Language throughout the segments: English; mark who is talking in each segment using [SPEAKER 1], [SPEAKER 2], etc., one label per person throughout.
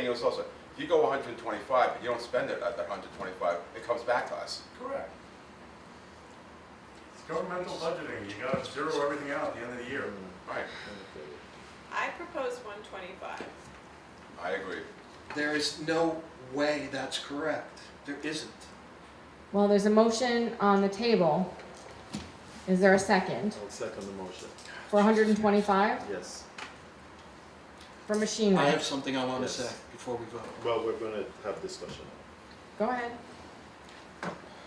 [SPEAKER 1] else also, if you go hundred and twenty-five, but you don't spend it at the hundred and twenty-five, it comes back to us.
[SPEAKER 2] Correct. It's governmental budgeting, you gotta zero everything out at the end of the year.
[SPEAKER 1] Right,
[SPEAKER 3] I propose one twenty-five.
[SPEAKER 1] I agree.
[SPEAKER 4] There is no way that's correct. There isn't.
[SPEAKER 5] Well, there's a motion on the table. Is there a second?
[SPEAKER 6] I'll second the motion,
[SPEAKER 5] For hundred and twenty-five,
[SPEAKER 6] yes.
[SPEAKER 5] for machine
[SPEAKER 4] I
[SPEAKER 5] gun?
[SPEAKER 4] have something I want to
[SPEAKER 6] Yes.
[SPEAKER 4] say before we vote.
[SPEAKER 6] Well, we're gonna have discussion.
[SPEAKER 5] Go ahead.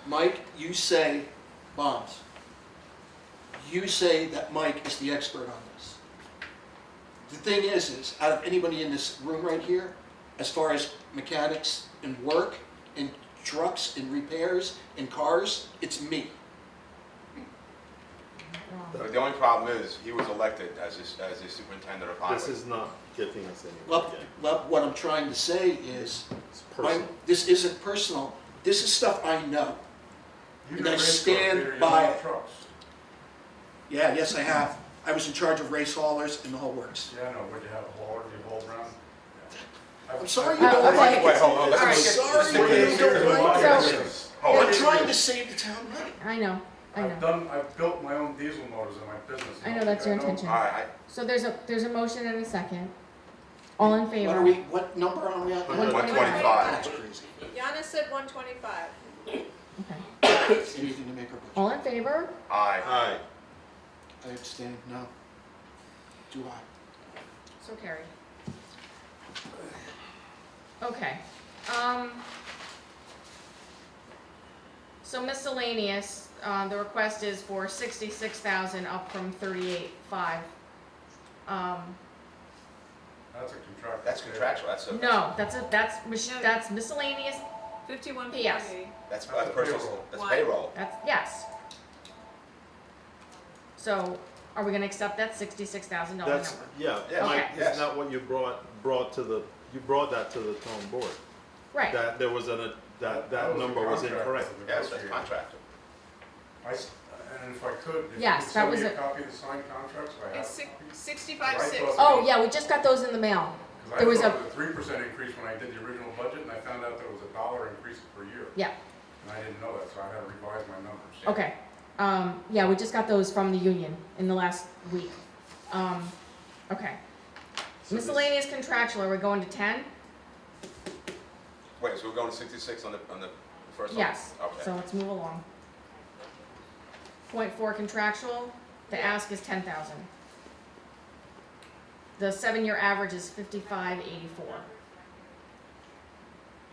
[SPEAKER 4] Mike, you say bonds. You say that Mike is the expert on this. The thing is, is out of anybody in this room right here, as far as mechanics and work and trucks and repairs and cars, it's me.
[SPEAKER 1] But the only problem is, he was elected as his, as the superintendent of highways.
[SPEAKER 6] This is not getting us anywhere
[SPEAKER 4] Well,
[SPEAKER 6] again.
[SPEAKER 4] well, what I'm trying to say is,
[SPEAKER 6] It's
[SPEAKER 4] I'm,
[SPEAKER 6] personal.
[SPEAKER 4] this isn't personal. This is stuff I know.
[SPEAKER 2] You
[SPEAKER 4] And
[SPEAKER 2] can
[SPEAKER 4] I
[SPEAKER 2] race cars,
[SPEAKER 4] stand
[SPEAKER 2] Peter, you
[SPEAKER 4] by
[SPEAKER 2] don't
[SPEAKER 4] it.
[SPEAKER 2] trucks.
[SPEAKER 4] Yeah, yes, I have. I was in charge of race haulers and the whole works.
[SPEAKER 2] Yeah, I know, but you have a hauler, you haul around. Yeah.
[SPEAKER 4] I'm sorry you
[SPEAKER 5] Uh,
[SPEAKER 4] don't like
[SPEAKER 5] okay.
[SPEAKER 4] it.
[SPEAKER 1] Wait, hold on, let's
[SPEAKER 5] All
[SPEAKER 4] I'm
[SPEAKER 5] right.
[SPEAKER 1] make it- let's
[SPEAKER 4] sorry
[SPEAKER 1] stick with
[SPEAKER 4] you
[SPEAKER 1] it.
[SPEAKER 4] don't like it.
[SPEAKER 5] So-
[SPEAKER 1] Hold on.
[SPEAKER 4] I'm trying to save the town money.
[SPEAKER 5] I know, I
[SPEAKER 2] I've
[SPEAKER 5] know.
[SPEAKER 2] done, I've built my own diesel motors in my business.
[SPEAKER 5] I know that's your
[SPEAKER 2] don't-
[SPEAKER 5] intention.
[SPEAKER 1] All right,
[SPEAKER 5] So there's a, there's a motion and a second. All in favor?
[SPEAKER 4] What are we, what number are we at?
[SPEAKER 1] I,
[SPEAKER 5] Hundred.
[SPEAKER 1] one twenty-five.
[SPEAKER 4] That's crazy.
[SPEAKER 3] Yana said one twenty-five.
[SPEAKER 5] Okay.
[SPEAKER 4] Anything to make our budget.
[SPEAKER 5] All in favor?
[SPEAKER 1] Aye.
[SPEAKER 6] Aye,
[SPEAKER 4] I abstain, no. Do I?
[SPEAKER 5] So carried. Okay, um. So miscellaneous, uh, the request is for sixty-six thousand up from thirty-eight five. Um,
[SPEAKER 2] That's a contractual.
[SPEAKER 1] That's
[SPEAKER 2] sale.
[SPEAKER 1] contractual, that's a,
[SPEAKER 5] no, that's a, that's, mis-
[SPEAKER 3] No.
[SPEAKER 5] that's miscellaneous,
[SPEAKER 3] Fifty-one
[SPEAKER 5] Yes.
[SPEAKER 3] forty.
[SPEAKER 1] that's, that's personal,
[SPEAKER 2] Payroll.
[SPEAKER 1] that's
[SPEAKER 3] Why?
[SPEAKER 1] payroll.
[SPEAKER 5] that's, yes. So, are we gonna accept that sixty-six thousand dollar number?
[SPEAKER 6] that's, yeah,
[SPEAKER 1] Yeah.
[SPEAKER 6] Mike,
[SPEAKER 5] Okay.
[SPEAKER 1] Yes.
[SPEAKER 6] isn't that what you brought, brought to the, you brought that to the town board?
[SPEAKER 5] Right,
[SPEAKER 6] That there was an, that, that
[SPEAKER 2] was a
[SPEAKER 6] number was
[SPEAKER 2] contract
[SPEAKER 6] incorrect.
[SPEAKER 2] that we
[SPEAKER 1] Yes, that's
[SPEAKER 2] negotiated.
[SPEAKER 1] contractual.
[SPEAKER 2] I s- And if I could, if you
[SPEAKER 5] Yes,
[SPEAKER 2] could
[SPEAKER 5] that
[SPEAKER 2] send
[SPEAKER 5] was
[SPEAKER 2] me a
[SPEAKER 5] it.
[SPEAKER 2] copy of the signed contracts, I have.
[SPEAKER 3] It's six, sixty-five,
[SPEAKER 2] Right,
[SPEAKER 3] six.
[SPEAKER 2] plus-
[SPEAKER 5] oh, yeah, we just got those in the mail. There was
[SPEAKER 2] Because I thought
[SPEAKER 5] a-
[SPEAKER 2] it was a three percent increase when I did the original budget, and I found out that it was a dollar increase per year.
[SPEAKER 5] Yeah.
[SPEAKER 2] And I didn't know that, so I had to revise my numbers.
[SPEAKER 5] Okay, um, yeah, we just got those from the union in the last week. Um, okay.
[SPEAKER 6] So this-
[SPEAKER 5] Miscellaneous contractual, are we going to ten?
[SPEAKER 1] Wait, so we're going to sixty-six on the, on the first one?
[SPEAKER 5] Yes, so
[SPEAKER 1] Okay.
[SPEAKER 5] let's move along. Point four contractual, the ask is ten thousand. The seven-year average is fifty-five eighty-four.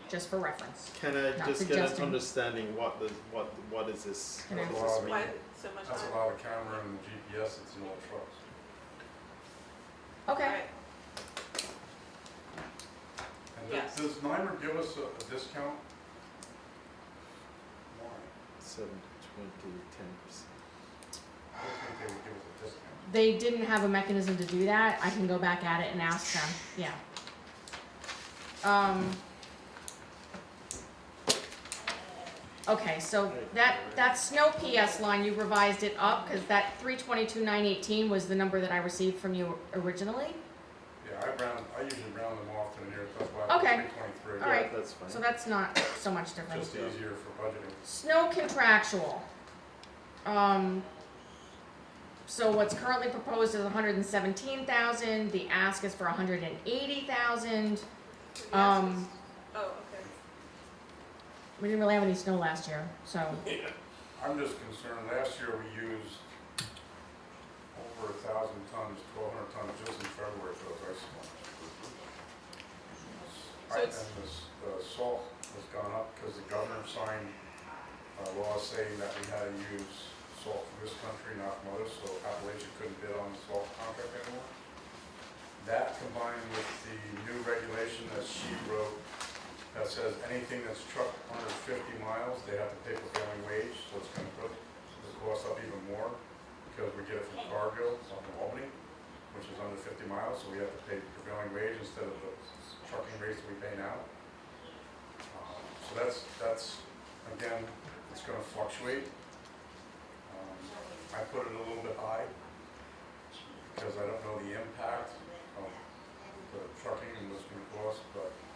[SPEAKER 5] Just for reference.
[SPEAKER 6] Can I just
[SPEAKER 5] Not
[SPEAKER 6] get an
[SPEAKER 5] suggesting.
[SPEAKER 6] understanding what the, what, what is this,
[SPEAKER 5] Can
[SPEAKER 6] what
[SPEAKER 5] I-
[SPEAKER 6] does this
[SPEAKER 3] Why
[SPEAKER 6] mean?
[SPEAKER 3] so much
[SPEAKER 2] That's a
[SPEAKER 3] money?
[SPEAKER 2] lot of camera and GPS that's in all trucks.
[SPEAKER 5] Okay,
[SPEAKER 3] Right.
[SPEAKER 2] And
[SPEAKER 3] Yes.
[SPEAKER 2] does- does NYMER give us a a discount? Why?
[SPEAKER 6] Seven, twenty, ten percent.
[SPEAKER 2] I don't think they would give us a discount.
[SPEAKER 5] they didn't have a mechanism to do that, I can go back at it and ask them, yeah. Um. Okay, so that, that snow PS line, you revised it up, cause that three twenty-two nine eighteen was the number that I received from you originally.
[SPEAKER 2] Yeah, I round, I usually round them off to the nearest, that's why I put
[SPEAKER 5] Okay.
[SPEAKER 2] three twenty-three.
[SPEAKER 5] All right.
[SPEAKER 6] That's fine.
[SPEAKER 5] So that's not so much different.
[SPEAKER 2] Just easier for budgeting.
[SPEAKER 5] Snow contractual. Um, so what's currently proposed is hundred and seventeen thousand, the ask is for hundred and eighty thousand.
[SPEAKER 3] Yes.
[SPEAKER 5] Um,
[SPEAKER 3] Oh, okay.
[SPEAKER 5] we didn't really have any snow last year, so,
[SPEAKER 2] I'm just concerned, last year we used over a thousand tons, twelve hundred tons just in February for those ice storms. I-
[SPEAKER 3] So
[SPEAKER 2] And
[SPEAKER 3] it's-
[SPEAKER 2] this, the salt has gone up because the governor signed a law saying that we had to use salt from this country, not from others, so Appalachia couldn't bid on the salt contract anymore. That combined with the new regulation that she wrote that says anything that's trucked under fifty miles, they have to pay prevailing wage, so it's gonna put the cost up even more, because we get it from Cargill, it's up in Albany, which is under fifty miles, so we have to pay prevailing wage instead of the trucking rates that we pay now. Uh, So that's, that's, again, it's gonna fluctuate. Um, I put it a little bit high, because I don't know the impact of the trucking and what's gonna cost, but